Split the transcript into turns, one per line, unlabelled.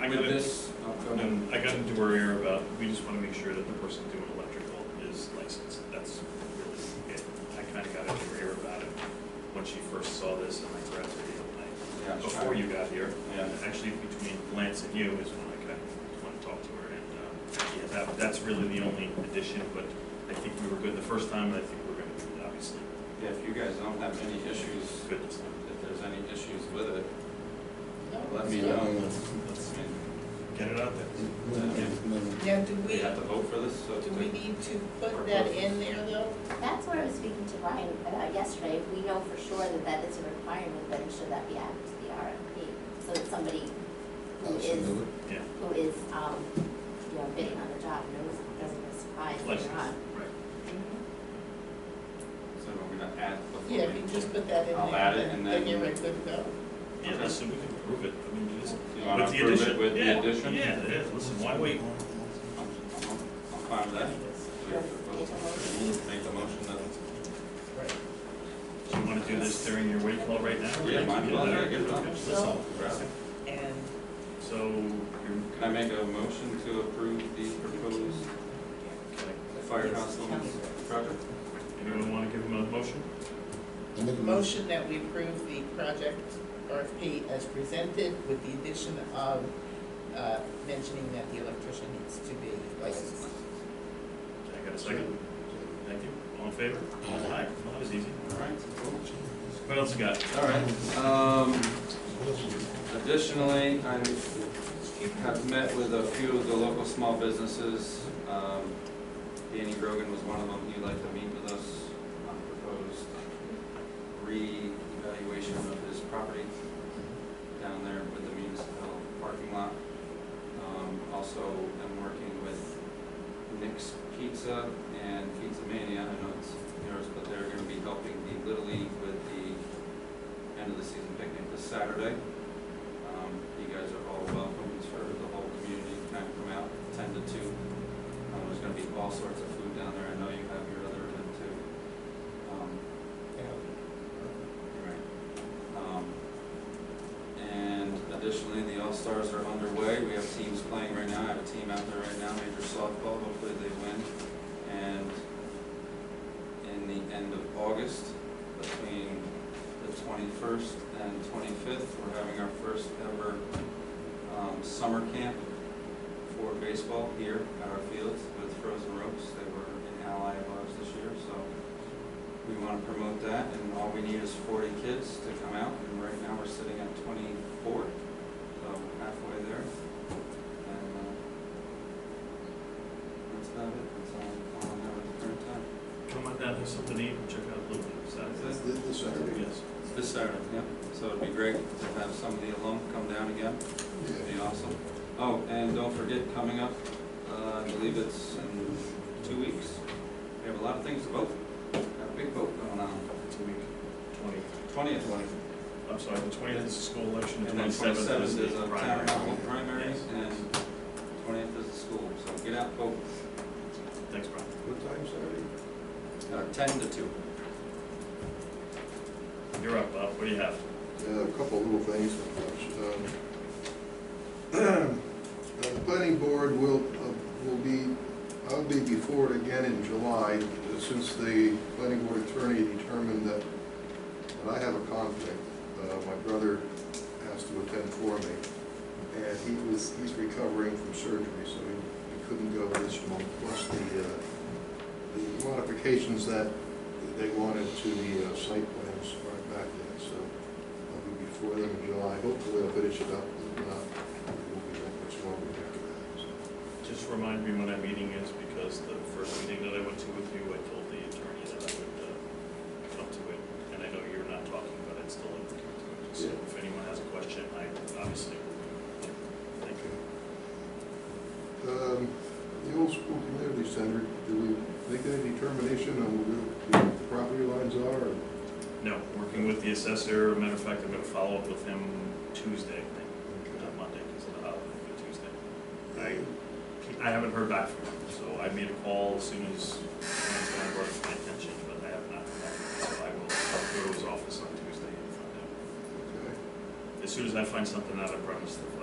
I
with
gotta-
this upcoming?
And I got into her ear about, we just wanna make sure that the person doing electrical is licensed, that's really it. I kinda got into her ear about it when she first saw this and I grabbed her the other night,
Yeah,
before you got here.
Yeah.
And Actually, between Lance and you is when I kinda wanna talk to her and, um, yeah, that, that's really the only addition, but I think we were good the first time and I think we're gonna, obviously,
Yeah, if you guys don't have any issues,
good this time.
if there's any issues with it, let me
No,
know.
no,
Let's
I mean,
get it out there.
no, no, no.
Now, do
We
we,
have to vote for this, so.
do we need to put that in there though?
That's what I was speaking to Ryan about yesterday. If We know for sure that that is a requirement, then should that be added to the RFP? So that somebody who
That should
is,
do it.
Yeah.
who is, um, you know, bidding on the job knows, doesn't get surprised later
Licensed,
on.
right.
Mm-hmm.
So we're gonna add. the-
Yeah, we just put that in there.
I'll add it and then-
Then you're good to go.
Yeah,
Okay.
listen, we can prove it, I mean, it is.
You wanna
With the
approve it
addition.
with the
Yeah,
addition?
Yeah, it is. listen, why wait?
I'm I'm- I'm fine with that. We have to vote. Make the motion that,
Do you wanna do this during your wait call right now?
Yeah, might as well.
Okay,
Yeah, get it done.
okay,
So-
listen.
And
Mm-hmm.
So, you're,
can I make a motion to approve the proposed
okay,
firehouse limits project?
anyone wanna give him a motion?
I make a motion.
motion that we approve the project RFP as presented with the addition of, uh, mentioning that the electrician needs to be licensed.
Can I got a second? Thank you, all in favor?
Aye.
Aye, well, that was easy.
All right, cool.
What else you got?
All right, um, additionally, I have met with a few of the local small businesses. Um, Danny Grogan was one of them, he'd like to meet with us on a proposed reevaluation of his property down there with the municipal parking lot. Um, also, I'm working with Nick's Pizza and Pizza Mania, I know it's yours, but they're gonna be helping the Little League with the end of the season picnic this Saturday. Um, you guys are all welcome, it's for the whole community, kind of come out ten to two. Um, there's gonna be all sorts of food down there, I know you have your other event too. Um, Right. Um, And additionally, the All-Stars are underway, we have teams playing right now, I have a team out there right now, major softball, hopefully they win. And in the end of August, between the twenty-first and twenty-fifth, we're having our first ever, um, summer camp for baseball here at our fields with Frozen Ropes, they were an ally of ours this year, so we want to promote that, and all we need is forty kids to come out, and right now we're sitting at twenty-four, so halfway there. And, uh, that's about it, that's all, all I have at the current time.
Come on down, there's something to eat, check out Blue Leaves,
That's
that's
This, this Saturday.
Yes.
It's This Saturday, yeah, so it'd be great to have some of the alum come down again,
Yeah.
it'd be awesome. Oh, and don't forget, coming up, uh, I believe it's in two weeks, we have a lot of things to vote, got a big vote going on,
It's a week, twenty,
twentieth.
I'm sorry, the twentieth is the school election, the
And then
twenty-seventh
twenty-seventh
is
is
the
a
primary.
town hall primary,
Yes.
and twentieth is the school, so get out, vote,
Thanks, Brian.
What time Saturday?
uh, ten to two.
You're up, Bob, what do you have?
Yeah, a couple little things. Um, uh, Planning board will, uh, will be, I'll be before it again in July, uh, since the planning board attorney determined that, that I have a conflict. Uh, My brother has to attend for me, and he was, he's recovering from surgery, so he he couldn't go this month. Plus the, uh, the modifications that they wanted to the uh, site plans are back yet, so I'll be before them in July. Hopefully I'll finish it up, if not, it won't be that much longer after that. so.
Just remind me when that meeting is, because the first meeting that I went to with you, I told the attorney that I would uh, come to it, and I know you're not talking, but I'd still like to come to it. So
Yeah.
if anyone has a question, I obviously will. Thank you.
Um, The old school community center, do we make any determination on where the property lines are? or-
No, working with the assessor, matter of fact, I'm gonna follow up with him Tuesday, I think, not Monday, because of the holiday, but Tuesday. Uh, I, I haven't heard back from him, so I made a call as soon as, when it's kind of brought to my attention, but I have not, heard back from him. so I will go to his office on Tuesday and find out.
Okay.
As soon as I find something out, I promise to